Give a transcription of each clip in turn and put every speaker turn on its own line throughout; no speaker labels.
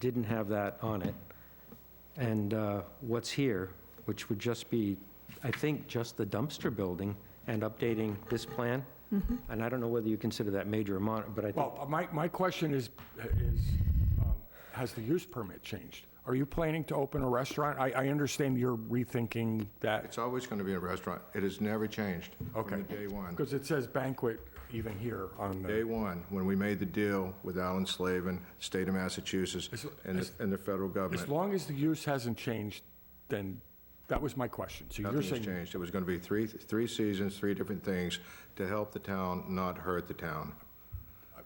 didn't have that on it. And uh, what's here, which would just be, I think, just the dumpster building and updating this plan. And I don't know whether you consider that major or minor, but I think,
Well, uh, my, my question is, is, um, has the use permit changed? Are you planning to open a restaurant? I, I understand you're rethinking that,
It's always going to be a restaurant. It has never changed
Okay.
from the day one.
because it says banquet even here on the,
Day one, when we made the deal with Alan Slavin, state of Massachusetts, and, the- and the federal
as
government.
long as the use hasn't changed, then, that was my question. So you're
Nothing has
saying,
changed. It was going to be three, three seasons, three different things to help the town, not hurt the town.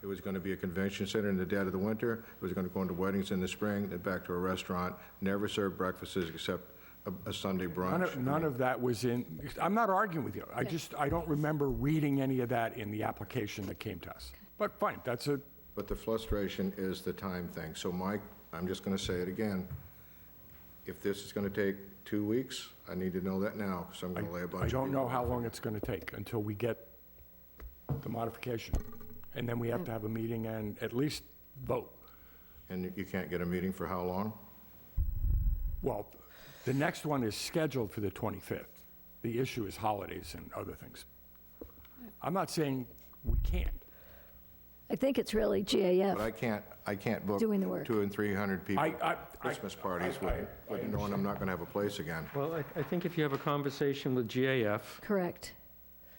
It was going to be a convention center in the dead of the winter. It was going to go into weddings in the spring, then back to a restaurant. Never served breakfasts except a, a Sunday
none
brunch.
of, none of that was in, I'm not arguing with you. I just, I don't remember reading any of that in the application that came to us. But fine, that's a,
But the frustration is the time thing. So Mike, I'm just going to say it again. If this is going to take two weeks, I need to know that now, because I'm going to lay a bunch of
I don't know
people
how
off.
long it's going to take until we get the modification. And then we have to have a meeting and at least vote.
And you can't get a meeting for how long?
Well, the next one is scheduled for the 25th. The issue is holidays and other things. I'm not saying we can't.
I think it's really
But
GAF.
I can't, I can't book
Doing the work.
two and 300 people
I- I- I-
Christmas parties
I- I-
with, with knowing I'm not going to have a place again.
well, I- I think if you have a conversation with GAF,
Correct.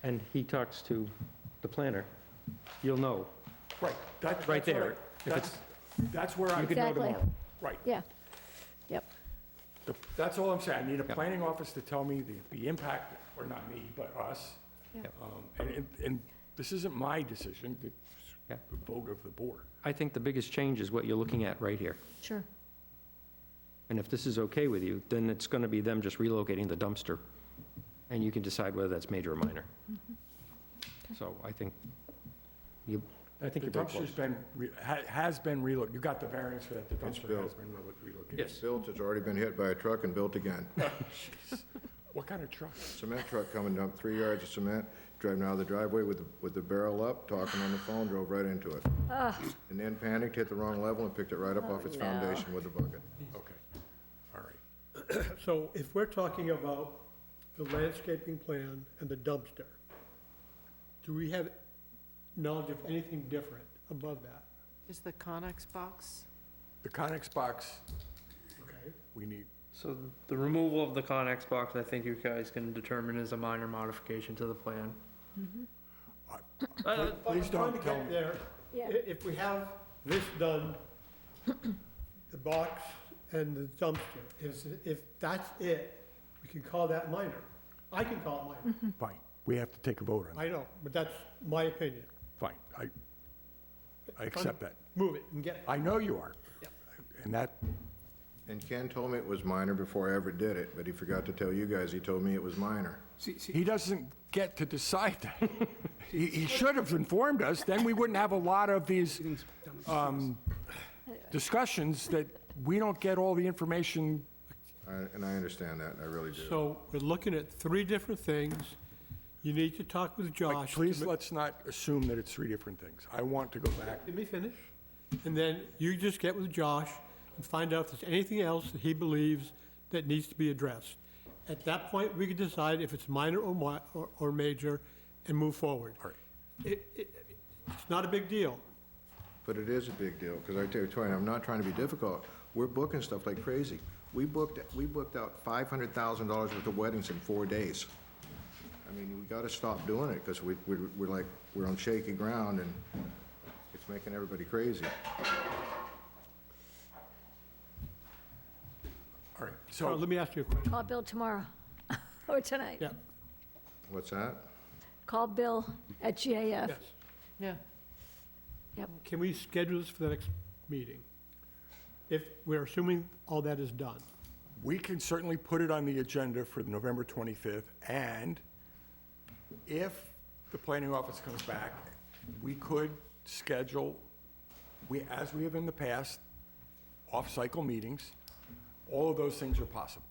and he talks to the planner, you'll know.
Right.
Right
that- that's what I-
there. If it's-
That's, that's where I'm,
You know
Exactly.
tomorrow.
right.
Yeah. Yep.
The- That's all I'm saying. I need a planning office to tell me the, the impact, or not me, but us. Um, And, and- and this isn't my decision, it's
Yeah.
the vote of the board.
I think the biggest change is what you're looking at right here.
Sure.
And if this is okay with you, then it's going to be them just relocating the dumpster, and you can decide whether that's major or minor. So I think you, I think you're
The
very
dumpster's
close.
been, re- ha- has been relocated, you got the variance for that, the
It's
dumpster has
built.
been relo- relocated.
Yes,
Built, it's already been hit by a truck and built again.
What kind of truck?
Cement truck coming up, three yards of cement, driving out of the driveway with, the- with the barrel up, talking on the phone, drove right into it. And then panicked, hit the wrong level, and picked it right up off its
no.
foundation with a bucket.
Okay, all right.
So if we're talking about the landscaping plan and the dumpster, do we have knowledge of anything different above that?
Is the Conex box?
The Conex box,
Okay,
we need,
So the removal of the Conex box, I think you guys can determine is a minor modification to the plan. Uh,
please
But I'm
don't tell
Trying to get
me.
there,
Yeah.
I- if we have this done, the box and the dumpster, is, if that's it, we can call that minor. I can call it minor,
Fine, we have to take a vote on it,
I know, but that's my opinion.
fine, I, I accept that.
Move it and get it.
I know you are. And that,
And Ken told me it was minor before I ever did it, but he forgot to tell you guys, he told me it was minor.
he doesn't get to decide that. He, he should have informed us, then we wouldn't have a lot of these, um, discussions that we don't get all the information
I- And I understand that, I really do.
So we're looking at three different things. You need to talk with
Mike,
Josh. to
Please
ma-
let's not assume that it's three different things. I want to go back.
Let me finish. And then you just get with Josh and find out if there's anything else that he believes that needs to be addressed. At that point, we can decide if it's minor or mi, or, or major and move forward.
All right.
It, it, it's not a big deal.
But it is a big deal, because I tell you, Tony, I'm not trying to be difficult. We're booking stuff like crazy. We booked, we booked out $500,000 worth of weddings in four days. I mean, we got to stop doing it, because we, we- we're like, we're on shaky ground, and it's making everybody crazy.
All right,
Now,
so,
let me ask you a question.
Call Bill tomorrow or tonight.
Yeah,
What's that?
Call Bill at GAF.
yes.
Yeah.
Can we schedule this for the next meeting? If we're assuming all that is done.
we can certainly put it on the agenda for November 25th, and if the planning office comes back, we could schedule, we, as we have in the past, off-cycle meetings. All of those things are possible.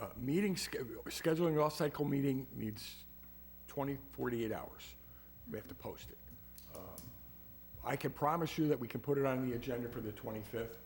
Uh, Meeting, sch- scheduling an off-cycle meeting needs 20, 48 hours. We Um, have to post it. I can promise you that we can put it on the agenda for the 25th.